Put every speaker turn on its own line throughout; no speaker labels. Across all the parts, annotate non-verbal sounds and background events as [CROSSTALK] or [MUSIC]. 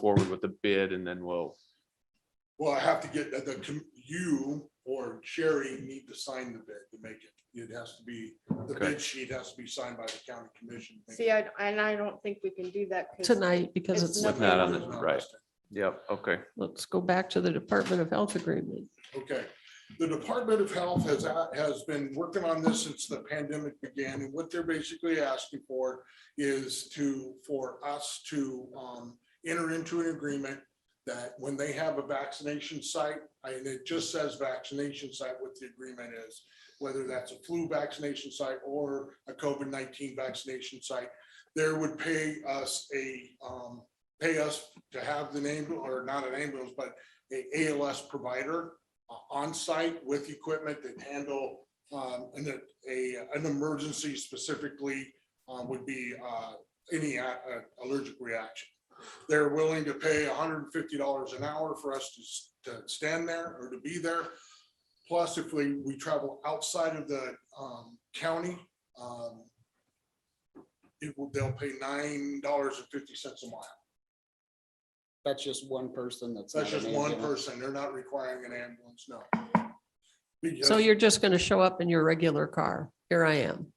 forward with the bid and then we'll,
Well, I have to get uh, the- the, com- you or Sherry need to sign the bid to make it. It has to be, the
Okay.
bid sheet has to be signed by the county commission.
See, I, and I don't think we can do that. 'cause
tonight because
It's
it's,
not-
with that on the, right. Yep, okay.
let's go back to the Department of Health agreement.
Okay, the Department of Health has, a- has been working on this since the pandemic began, and what they're basically asking for is to, for us to um, enter into an agreement that when they have a vaccination site, and it just says vaccination site, what the agreement is, whether that's a flu vaccination site or a COVID nineteen vaccination site, there would pay us a, um, pay us to have the name, or not an ambulance, but a ALS provider o- uh, on-site with equipment that handle um, and that a, an emergency specifically uh, would be uh, any uh, uh, allergic reaction. They're willing to pay hundred and fifty dollars an hour for us to, s- to stand there or to be there. Plus, if we, we travel outside of the um, county, um, it will, they'll pay nine dollars and fifty cents a mile.
That's just one person that's.
That's
not an
just one
ambulance.
person. They're not requiring an ambulance, no.
So
Because-
you're just going to show up in your regular car. Here I am.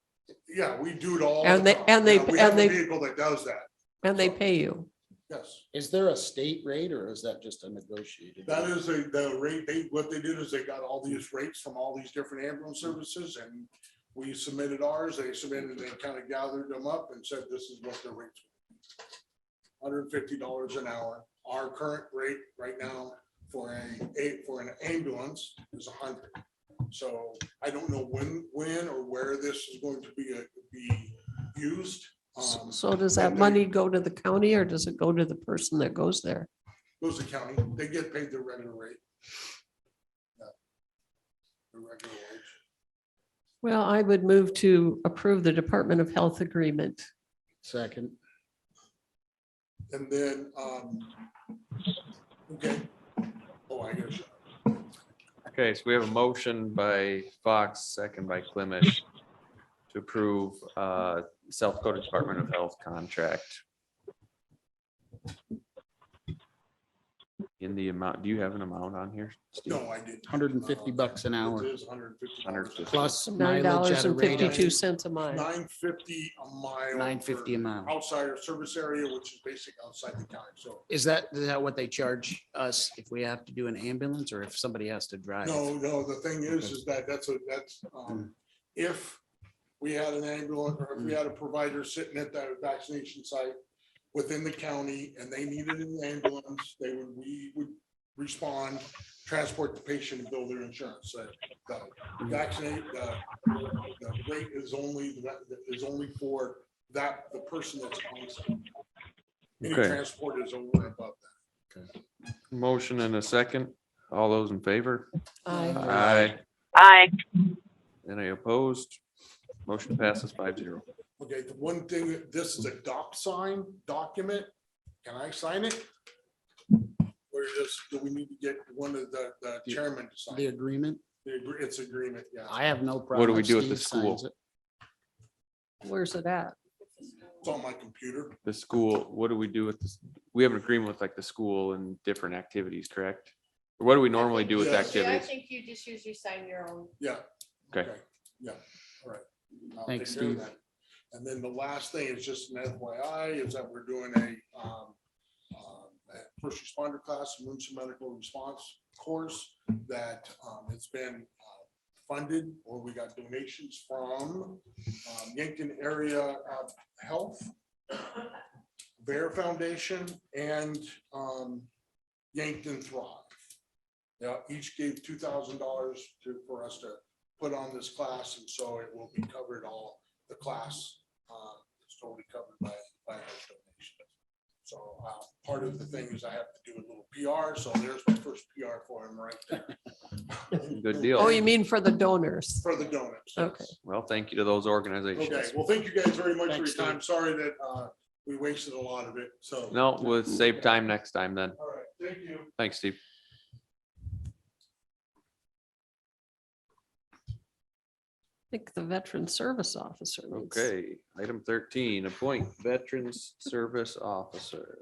Yeah, we do it all.
And
the
they-
time.
and they-
Yeah, We have
and
a
they-
vehicle that does that,
And they pay you.
yes.
Is there a state rate or is that just a negotiated?
That
rate?
is a, the rate, they, what they did is they got all these rates from all these different ambulance services and we submitted ours, they submitted, they kind of gathered them up and said, this is what the rates. Hundred and fifty dollars an hour. Our current rate right now for a, a- for an ambulance is a hundred. So I don't know when, when or where this is going to be, uh, be used.
S-
Um,
So does that
and they-
money go to the county or does it go to the person that goes there?
goes to county, they get paid their regular rate. Yeah. The regular wage.
Well, I would move to approve the Department of Health agreement.
Second,
And then, um, okay. Oh, I guess,
Okay, so we have a motion by Fox, second by Clemish to approve uh, South Dakota Department of Health contract. In the amount, do you have an amount on here? Steve?
no, I didn't. Uh,
hundred and fifty bucks an hour
It is hundred and fifty.
150.
plus
Nine
mileage
dollars
at a
and
rate
fifty-two
of
cents a mile.
Nine fifty a mile.
nine fifty a
for
mile.
Outside our service area, which is basic outside the county, so,
Is that, is that what they charge us if we have to do an ambulance or if somebody has to drive?
no, no, the thing is, is that, that's, a that's, um, if we had an ambulance, or if we had a provider sitting at that vaccination site within the county and they needed an ambulance, they would, we would respond, transport the patient and bill their insurance. So the vaccinate, the, the rate is only, is only for that, the person that's on site. Any
Okay.
transport is over and above
Motion and a second. All those in favor?
Aye.
Aye.
Aye.
Any opposed? Motion passes five zero.
that. Okay, the one thing, this is a doc sign document. Can I sign it? Or just, do we need to get one of the, the chairman to sign?
The
it?
agreement?
The agree- It's agreement, yeah.
I have no problem.
do we
if
do at the
Steve signs
school?
it.
Where's it at?
It's on my computer.
The school, what do we do with this? We have an agreement with like the school and different activities, correct? Or What do we normally do with
Yes.
Yeah, I
activities?
think you just usually sign your own.
Yeah.
Okay.
Yeah, all right. I'll
Thanks,
take care of
Steve.
that. And then the last thing is just an FYI is that we're doing a um, um, a first responder class, emergency medical response course that um, it's been uh, funded or we got donations from um, Yankton Area uh, Health, Bear Foundation and um, Yankton Thrive. Yeah, each gave two thousand dollars to, for us to put on this class, and so it will be covered all, the class, uh, is totally covered by, by those donations. So, uh, part of the thing is I have to do a little PR, so there's my first PR for him right there.
[LAUGHS] Good deal.
Oh, you mean for the donors?
For the donors.
Okay.
Well, thank you to those
Okay,
organizations.
well, thank you guys very much for your
Thanks,
time, sorry that, uh, we wasted a lot of it, so.
No, we'll save time next time then.
All right, thank you.
Thanks, Steve.
I think the veteran service officer. needs-
Okay, item thirteen, appoint veterans service officer.